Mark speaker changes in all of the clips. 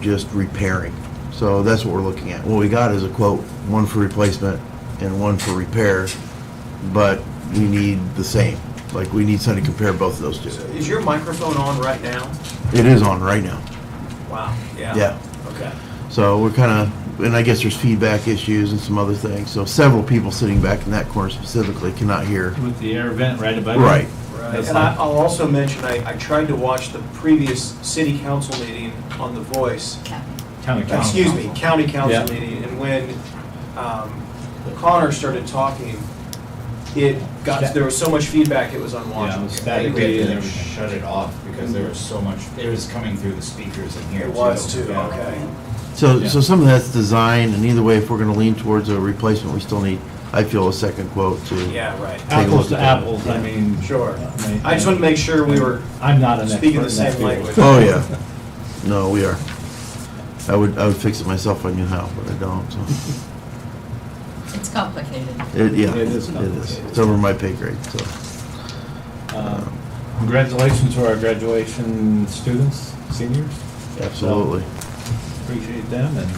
Speaker 1: just repairing. So that's what we're looking at. What we got is a quote, one for replacement and one for repair, but we need the same. Like, we need something to compare both of those to.
Speaker 2: Is your microphone on right now?
Speaker 1: It is on right now.
Speaker 2: Wow, yeah.
Speaker 1: Yeah.
Speaker 2: Okay.
Speaker 1: So we're kind of, and I guess there's feedback issues and some other things. So several people sitting back in that corner specifically cannot hear.
Speaker 3: With the air vent right above it?
Speaker 1: Right.
Speaker 3: That's
Speaker 2: And I,
Speaker 3: fine.
Speaker 2: I'll also mention, I, I tried to watch the previous city council meeting on The Voice.
Speaker 3: County council.
Speaker 2: Excuse me, county council
Speaker 3: Yeah.
Speaker 2: meeting, and when um, Connor started talking, it got, there was so much feedback, it was
Speaker 3: Yeah, it was
Speaker 2: unwatchable.
Speaker 3: sta-
Speaker 4: That
Speaker 3: Static
Speaker 4: we had to
Speaker 3: radio and everything.
Speaker 4: shut it off because there was so much, it was coming through the speakers in here.
Speaker 2: It was too,
Speaker 4: yeah.
Speaker 2: okay.
Speaker 1: So,
Speaker 3: Yeah.
Speaker 1: so some of that's design, and either way, if we're going to lean towards a replacement, we still need, I feel, a second quote to.
Speaker 2: Yeah, right,
Speaker 1: Take a look
Speaker 3: Apples to
Speaker 1: at that.
Speaker 3: apples, I mean.
Speaker 2: sure.
Speaker 3: I mean,
Speaker 2: I just wanted to make sure we were
Speaker 3: I'm not an expert.
Speaker 2: speaking the
Speaker 3: in that
Speaker 2: same
Speaker 3: field.
Speaker 2: language.
Speaker 1: Oh, yeah. No, we are. I would, I would fix it myself if I knew how, but I don't, so.
Speaker 5: It's complicated.
Speaker 1: It, yeah.
Speaker 3: It is complicated.
Speaker 1: It's over my pay grade, so.
Speaker 3: Um, Congratulations to our graduation students, seniors.
Speaker 1: Absolutely.
Speaker 3: Appreciate them, and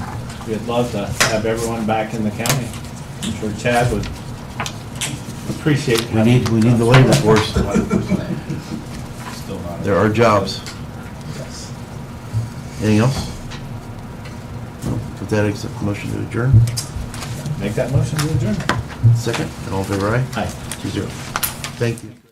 Speaker 3: we'd love to have everyone back in the county. I'm sure Chad would appreciate.
Speaker 1: We need, we need the labor force.
Speaker 4: Still not.
Speaker 1: There are jobs.
Speaker 3: Yes.
Speaker 1: Anything else? No. With that, accept motion to adjourn.
Speaker 3: Make that motion to adjourn.
Speaker 1: Second, and all in favor, aye?
Speaker 3: Aye.
Speaker 1: Two zero. Thank you.